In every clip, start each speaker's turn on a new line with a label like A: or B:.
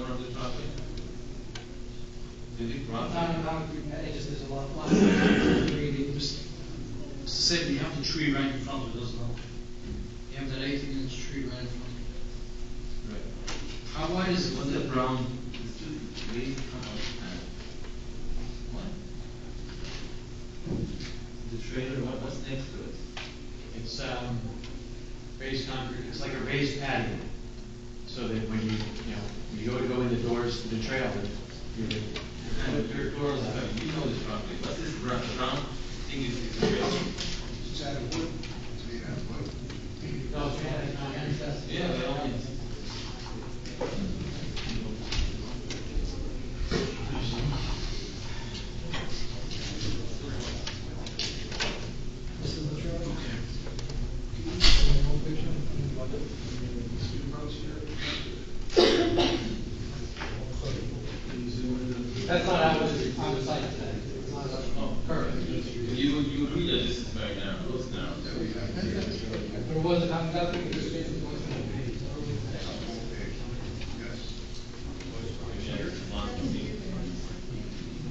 A: monthly? Did he, monthly?
B: Not, not, it just, there's a lot, lot of things to read, it just,
C: It's the same, you have the tree right in front of it, doesn't it? You have that eighteen inch tree right in front of it.
A: Right.
C: How wide is it?
A: What's that brown, it's two, three, uh, what? The trailer, what, what's next to it?
D: It's, um, raised concrete, it's like a raised patio. So that when you, you know, when you go to go in the doors to the trailer, you would
A: And
D: put
A: the
D: your
A: third door,
D: doors
A: is, uh,
D: out.
A: you know this property, what's this brown, brown thing is, is a trailer?
E: It's out of wood. It's made out of wood.
D: No, it's made out of concrete.
A: Yeah, by all means.
B: this is the trailer. That's not how it is on the site today, it's not a Oh, curve.
A: You, you agree that this is very narrow, it looks narrow.
B: There was, not- nothing, there's been, wasn't.
E: Yes.
A: Yeah, it's long, it's deep.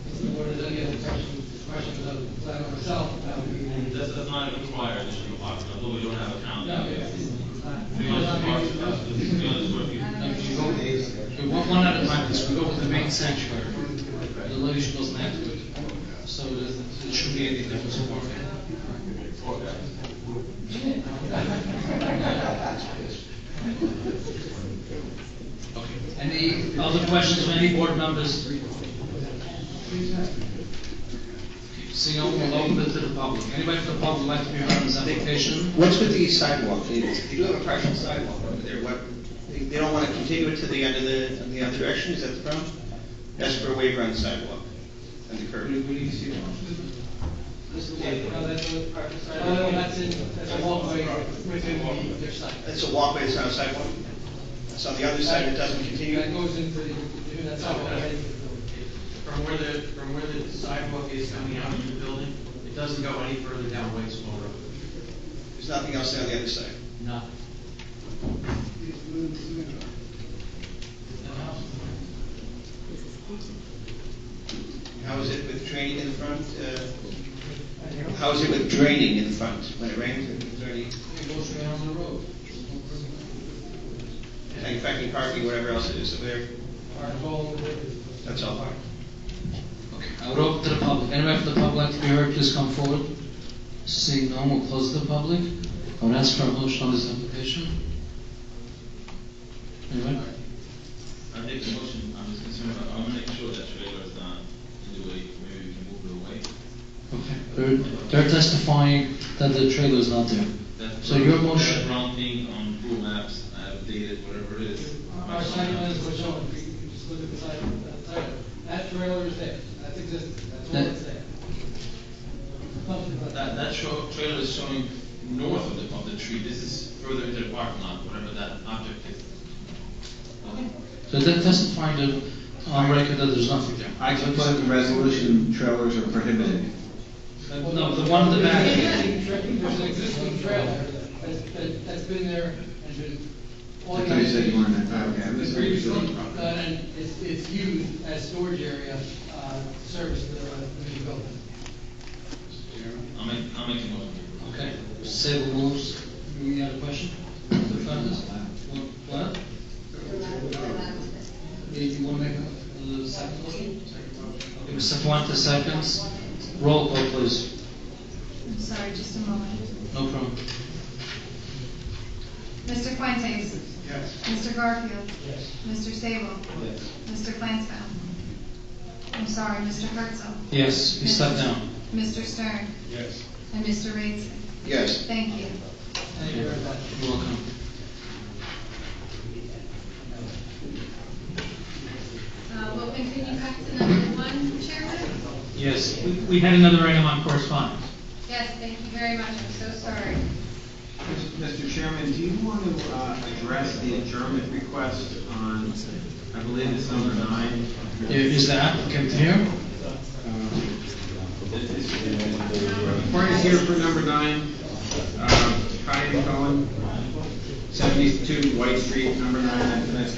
B: If the board has any other questions, questions of the plan itself, that would be.
A: This does not require additional parking, although we don't have a count.
B: No, it's, it's not.
A: Three hundred parking, uh, three hundred square feet.
C: We want one at a time, because we go with the main sanctuary. The luggage goes next to it. So it doesn't- it shouldn't be any difference in parking.
A: Four guys.
C: Any other questions from any board members? Seeing no one, we'll open it to the public. Anybody from the public like to be heard on this application?
F: What's with the sidewalk? They they do have a partial sidewalk over there. What, they they don't want to continue it to the end of the, in the other direction, is that the problem? That's for a waiver on the sidewalk and the curb.
B: No, that's a, no, that's in, that's a walkway within the- their site.
F: That's a walkway, it's not a sidewalk? That's on the other side, it doesn't continue?
B: That goes into the, that's how it heads into the building.
D: From where the, from where the sidewalk is coming out of the building, it doesn't go any further down Whitesville Road.
F: There's nothing else there on the other side?
D: Nothing.
F: How is it with draining in the front? uh, How is it with draining in the front? When it rains, is there any,
C: It goes right on the road.
F: like, affecting parking, whatever else it is, so there,
B: Our goal is
F: that's all part.
C: Okay, I would open to the public. Anybody from the public like to be heard, please come forward. Seeing no one, we'll close the public. I would ask for a motion on this application. Anybody?
A: I make a motion, I'm just concerned, about- I wanna make sure that trailer is not in the way, maybe we can move it away.
C: Okay, they're, they're testifying that the trailer is not there.
A: That-
C: So your
A: That
C: motion-
A: brown thing on Google Maps, I have dated whatever it is.
B: Our site plan is what's shown, if you just look at the site, that site, that trailer is there, that's existing, that's all that's there. Something like
A: That, that show, trailer is showing north of the, of the tree, this is further into the parking lot, whatever that object is.
C: So they're testifying that, on record that there's nothing there.
G: I took by the resolution, trailers are prohibited.
C: No, the one in the
B: There's an
C: back.
B: existing tra- There's an existing trailer that's, that- that's been there and been. all
G: I thought you said you wanted to, okay, I
B: It's
G: misunderstood.
B: previously, uh, and it's, it's used as storage area, uh, service to the, to the building.
A: I'll make, I'll make a motion.
C: Okay, Sable moves. Any other question? The front is, uh, what? Yeah, You want to make a uh, second motion? Okay, Mr. Fuentes, seconds. Roll call, please.
H: I'm sorry, just a moment.
C: No problem.
H: Mr. Fuentes?
E: Yes.
H: Mr. Garfield?
B: Yes.
H: Mr. Sable? Mr. Flansbrough? I'm sorry, Mr. Herzl?
C: Yes, he stepped down.
H: Mr. Stern?
E: Yes.
H: And Mr. Raisin?
F: Yes.
H: Thank you.
B: Thank you very much.
C: You're welcome.
H: Uh, We'll continue back to number one, Chairman.
I: Yes, we- we had another item on correspondence.
H: Yes, thank you very much, I'm so sorry.
G: Mr. Chairman, do you want to uh, address the adjournment request on, I believe it's number nine? Uh,
C: I- Is the applicant here?
G: Party's here for number nine, uh, Cohen, 72 White Street, number nine, that's